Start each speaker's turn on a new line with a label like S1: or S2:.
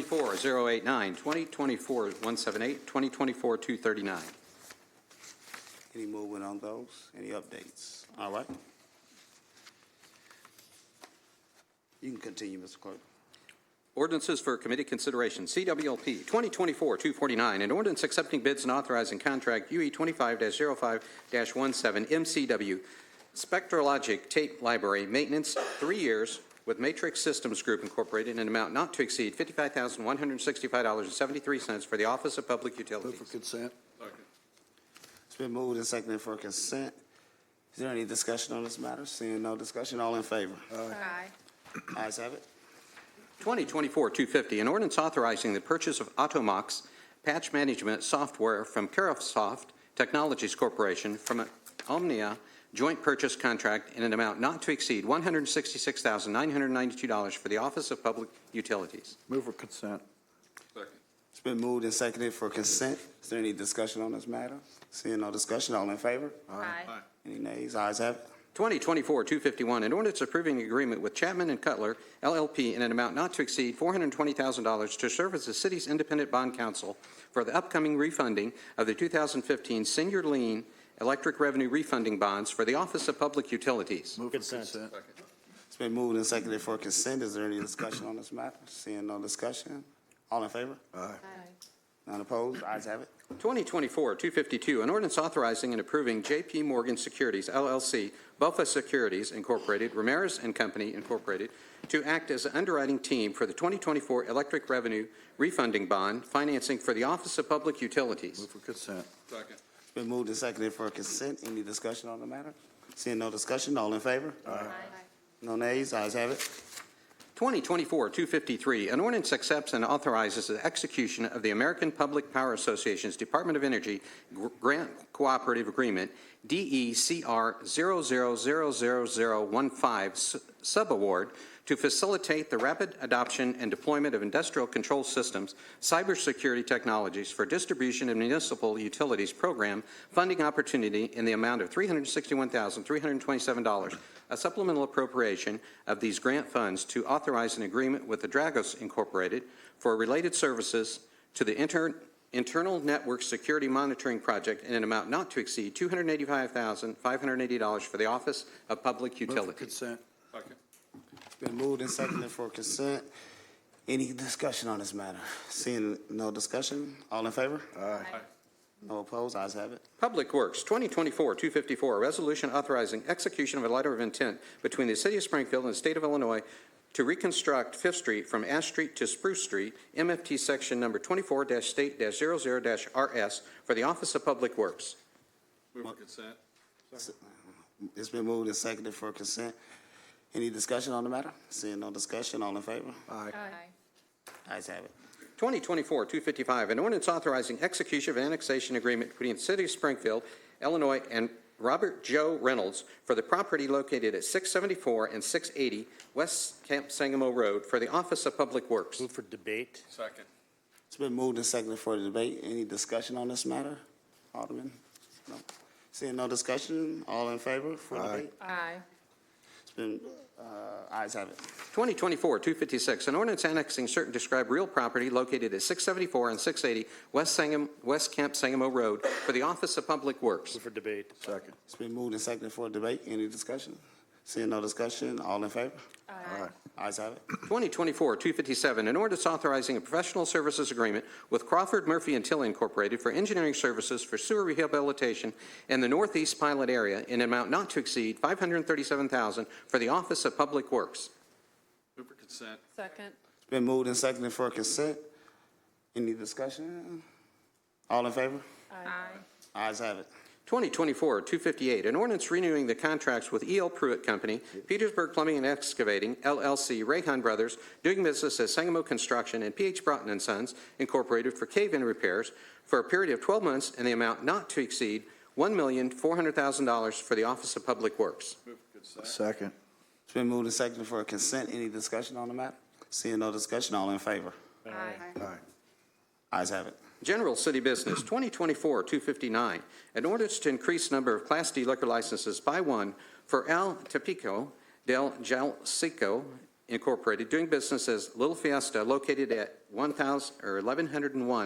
S1: 2024-089, 2024-178, 2024-239.
S2: Any movement on those? Any updates? All right. You can continue, Mr. Clerk.
S1: Ordinances for committee consideration, CWLP 2024-249, an ordinance accepting bids and authorizing contract E UE 25-05-17 MCW Spectrologic Tape Library Maintenance, three years, with Matrix Systems Group Incorporated in an amount not to exceed $55,165.73 for the Office of Public
S3: Move for
S1: Utilities.
S3: consent.
S2: It's been moved and seconded for consent. Is there any discussion on this matter? Seeing no discussion, all in favor?
S4: Aye.
S2: Ayes have it.
S1: 2024-250, an ordinance authorizing the purchase of Automox patch management software from Carahsoft Technologies Corporation from an Omnia joint purchase contract in an amount not to exceed $166,992 for the Office of Public Utilities.
S3: Move for consent.
S2: It's been moved and seconded for consent. Is there any discussion on this matter? Seeing no discussion, all in favor?
S4: Aye.
S2: Any nays? Ayes have it.
S1: 2024-251, an ordinance approving an agreement with Chapman and Cutler LLP in an amount not to exceed $420,000 to serve as the city's independent bond counsel for the upcoming refunding of the 2015 senior lien electric revenue refunding bonds for the Office of Public Utilities.
S3: Move for consent.
S2: It's been moved and seconded for consent. Is there any discussion on this matter? Seeing no discussion, all in favor?
S3: Aye.
S2: None opposed? Ayes have it.
S1: 2024-252, an ordinance authorizing and approving J.P. Morgan Securities LLC, Buffa Securities Incorporated, Ramirez and Company Incorporated, to act as an underwriting team for the 2024 electric revenue refunding bond financing for the Office of Public Utilities.
S3: Move for consent.
S2: It's been moved and seconded for consent. Any discussion on the matter? Seeing no discussion, all in favor? No nays? Ayes have it.
S1: 2024-253, an ordinance accepts and authorizes the execution of the American Public Power Association's Department of Energy Gr- Grant Cooperative Agreement, E DECR 0000015 s- Subaward, to facilitate the rapid adoption and deployment of industrial control systems, cybersecurity technologies for distribution and municipal utilities program funding opportunity in the amount of $361,327, a supplemental appropriation of these grant funds to authorize an agreement with the Dragos Incorporated for related services to the inter- Internal Network Security Monitoring Project in an amount not to exceed $285,580 for the Office of Public
S3: Move for
S1: Utilities.
S3: consent.
S2: It's been moved and seconded for consent. Any discussion on this matter? Seeing no discussion, all in favor?
S3: Aye.
S2: No opposed? Ayes have it.
S1: Public Works, 2024-254, a resolution authorizing execution of a letter of intent between the City of Springfield and the State of Illinois to reconstruct Fifth Street from Ash Street to Spruce Street, MFT Section Number 24-State-00-RS for the Office of Public Works.
S2: It's been moved and seconded for consent. Any discussion on the matter? Seeing no discussion, all in favor?
S3: Aye.
S4: Aye.
S2: Ayes have it.
S1: 2024-255, an ordinance authorizing execution of an annexation agreement between the City of Springfield, Illinois, and Robert Joe Reynolds for the property located at 674 and 680 West Camp Sangamo Road for the Office of Public Works.
S5: Move for debate.
S6: Second.
S2: It's been moved and seconded for the debate. Any discussion on this matter? Alderman? No. Seeing no discussion, all in favor for
S3: Aye.
S2: debate?
S4: Aye.
S2: It's been, uh, ayes have it.
S1: 2024-256, an ordinance annexing certain described real property located at 674 and 680 West Sangam, West Camp Sangamo Road for the Office of Public Works.
S5: Move for debate.
S3: Second.
S2: It's been moved and seconded for debate. Any discussion? Seeing no discussion, all in favor?
S3: Aye.
S2: Ayes have it.
S1: 2024-257, an ordinance authorizing a professional services agreement with Crawford Murphy and Till Incorporated for engineering services for sewer rehabilitation in the northeast pilot area in an amount not to exceed $537,000 for the Office of Public Works.
S6: Move for consent.
S4: Second.
S2: It's been moved and seconded for consent. Any discussion? All in favor?
S4: Aye.
S2: Ayes have it.
S1: 2024-258, an ordinance renewing the contracts with E.L. Pruitt Company, Petersburg Plumbing and Excavating, LLC, Rayhan Brothers, doing business as Sangamo Construction, and P.H. Broughton and Sons Incorporated for cave-in repairs for a period of 12 months and the amount not to exceed $1,400,000 for the Office of Public Works.
S3: Second.
S2: It's been moved and seconded for consent. Any discussion on the matter? Seeing no discussion, all in favor?
S4: Aye.
S3: Aye.
S2: Ayes have it.
S1: General City Business, 2024-259, an ordinance to increase number of Class D liquor licenses by one for Al Tapico del Jalcico Incorporated, doing business as Little Fiesta, located at 1,000, or 1101